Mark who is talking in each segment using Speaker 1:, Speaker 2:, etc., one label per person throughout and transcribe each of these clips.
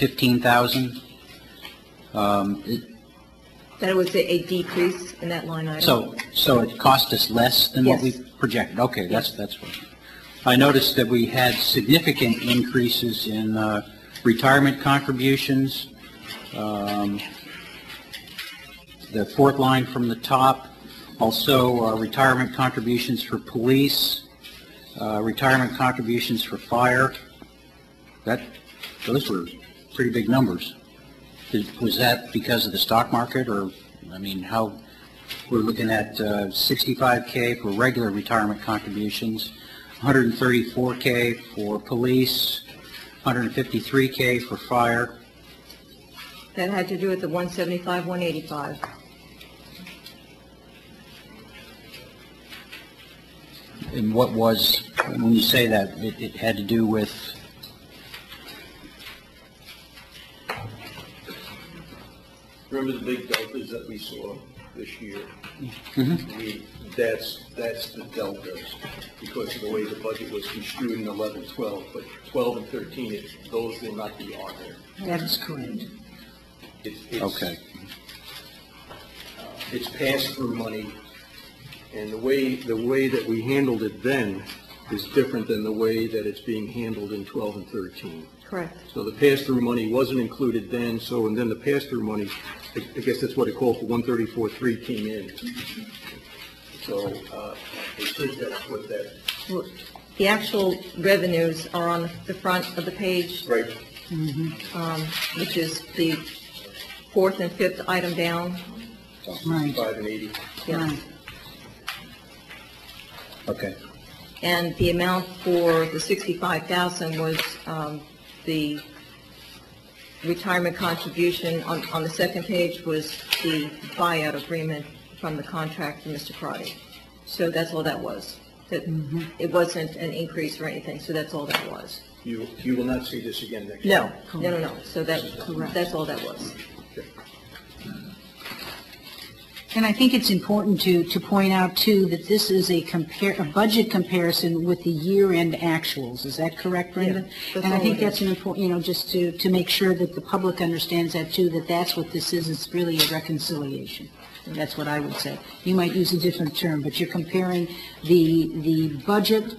Speaker 1: fifteen thousand. Um, it-
Speaker 2: That was a a decrease in that line item.
Speaker 1: so, so it cost us less than what we
Speaker 2: Yes.
Speaker 1: projected? Okay, that's, that's what. I noticed that we had significant increases in uh, retirement contributions. Um, The fourth line from the top, also uh, retirement contributions for police, uh, retirement contributions for fire. That, those were pretty big numbers. Is- Was that because of the stock market, or, I mean, how, we're looking at uh, 65K for regular retirement contributions, 134K for police, 153K for fire.
Speaker 2: That had to do with the 175, 185.
Speaker 1: And what was, when you say that, it it had to do with,
Speaker 3: Remember the big deltas that we saw this year? We- That's, that's the deltas, because of the way the budget was construed in 11, 12, but 12 and 13, it- those will not be on there.
Speaker 2: That is correct.
Speaker 3: It's- it's- uh,
Speaker 1: okay,
Speaker 3: It's pass-through money, and the way, the way that we handled it then is different than the way that it's being handled in 12 and 13.
Speaker 2: Correct.
Speaker 3: So the pass-through money wasn't included then, so, and then the pass-through money, I I guess that's what it called for, 134.3 came in. So uh, it should, that's what that,
Speaker 2: Well, The actual revenues are on the front of the page, um,
Speaker 3: right,
Speaker 2: which is the fourth and fifth item down.
Speaker 4: Right,
Speaker 3: 5 and 80.
Speaker 2: Yes.
Speaker 4: right.
Speaker 1: okay.
Speaker 2: And the amount for the 65,000 was um, the retirement contribution on on the second page was the buyout agreement from the contract for Mr. Crotty. So that's all that was. That It wasn't an increase or anything, so that's all that was.
Speaker 3: You, you will not see this again next year.
Speaker 2: No, no, no, no. So that, that's all that was.
Speaker 4: And I think it's important to, to point out too, that this is a compare, a budget comparison with the year-end actuals. Is that correct,
Speaker 2: Yeah,
Speaker 4: Brenda?
Speaker 2: that's
Speaker 4: And I
Speaker 2: all
Speaker 4: think
Speaker 2: it is.
Speaker 4: that's an important, you know, just to, to make sure that the public understands that too, that that's what this is. It's really a reconciliation. That's what I would say. You might use a different term, but you're comparing the, the budget,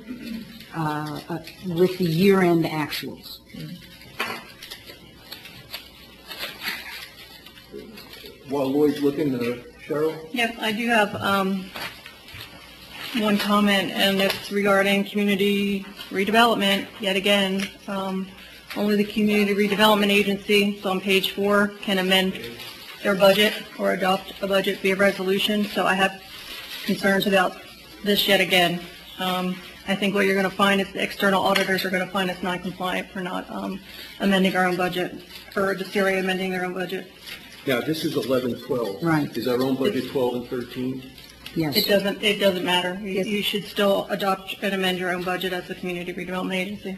Speaker 4: uh, uh, with the year-end actuals.
Speaker 3: While Lloyd's looking, uh, Cheryl,
Speaker 5: Yes, I do have um, one comment, and it's regarding community redevelopment, yet again. um, Only the Community Redevelopment Agency, it's on page four, can amend their budget or adopt a budget via resolution, so I have concerns about this yet again. Um, I think what you're going to find is the external auditors are going to find us non-compliant for not um, amending our own budget, for DeCelia amending their own budget.
Speaker 3: now, this is 11, 12.
Speaker 4: Right.
Speaker 3: Is our own budget 12 and 13?
Speaker 4: Yes.
Speaker 5: It doesn't, it doesn't matter. You you should still adopt and amend your own budget as a community redevelopment agency.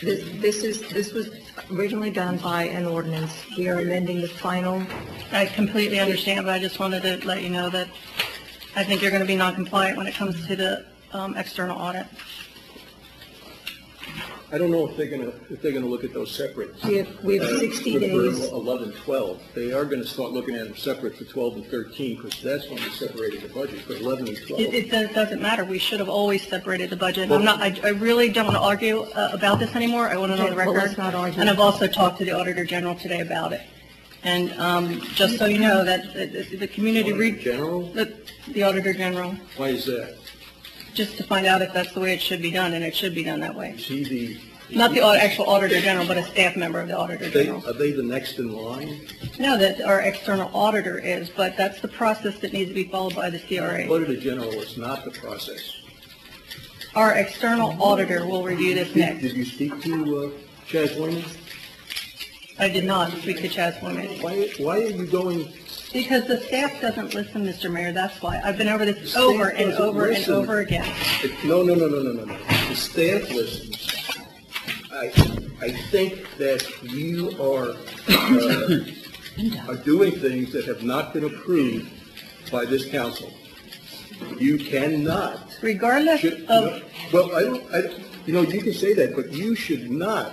Speaker 2: This this is, this was originally done by an ordinance. We are amending the final
Speaker 5: I completely understand, but I just wanted to let you know that I think you're going to be non-compliant when it comes to the um, external audit.
Speaker 3: I don't know if they're going to, if they're going to look at those separate.
Speaker 2: We have- we have 60
Speaker 3: Uh, for
Speaker 2: days.
Speaker 3: 11, 12, they are going to start looking at them separate for 12 and 13, because that's when we separated the budget, for 11 and 12.
Speaker 5: It, it does- doesn't matter. We should have always separated the budget. I'm not, I, I really don't want to argue uh, about this anymore. I want it on the
Speaker 2: Okay, well,
Speaker 5: record.
Speaker 2: let's not argue.
Speaker 5: And I've also talked to the Auditor General today about it. And um, just so you know, that, that- that the community re.
Speaker 3: Auditor General?
Speaker 5: The, the Auditor General.
Speaker 3: Why is that?
Speaker 5: just to find out if that's the way it should be done, and it should be done that way.
Speaker 3: Is he the?
Speaker 5: Not the au- actual Auditor General, but a staff member of the Auditor
Speaker 3: They,
Speaker 5: General.
Speaker 3: are they the next in line?
Speaker 5: No, that our external auditor is, but that's the process that needs to be followed by the CRA.
Speaker 3: Auditor General is not the process.
Speaker 5: Our external auditor will review this
Speaker 3: Did
Speaker 5: next.
Speaker 3: did you speak to uh, Chaz Wayman?
Speaker 5: I did not speak to Chaz Boyman.
Speaker 3: Why, why are you going,
Speaker 5: Because the staff doesn't listen, Mr. Mayor, that's why. I've been over this over and
Speaker 3: doesn't
Speaker 5: over and
Speaker 3: listen.
Speaker 5: over again.
Speaker 3: no, no, no, no, no, no, no. The staff listens. I, I think that you are, uh, are doing things that have not been approved by this council. You cannot
Speaker 5: Regardless
Speaker 3: Should-
Speaker 5: of,
Speaker 3: Well, I don't, I, don't- you know, you can say that, but you should not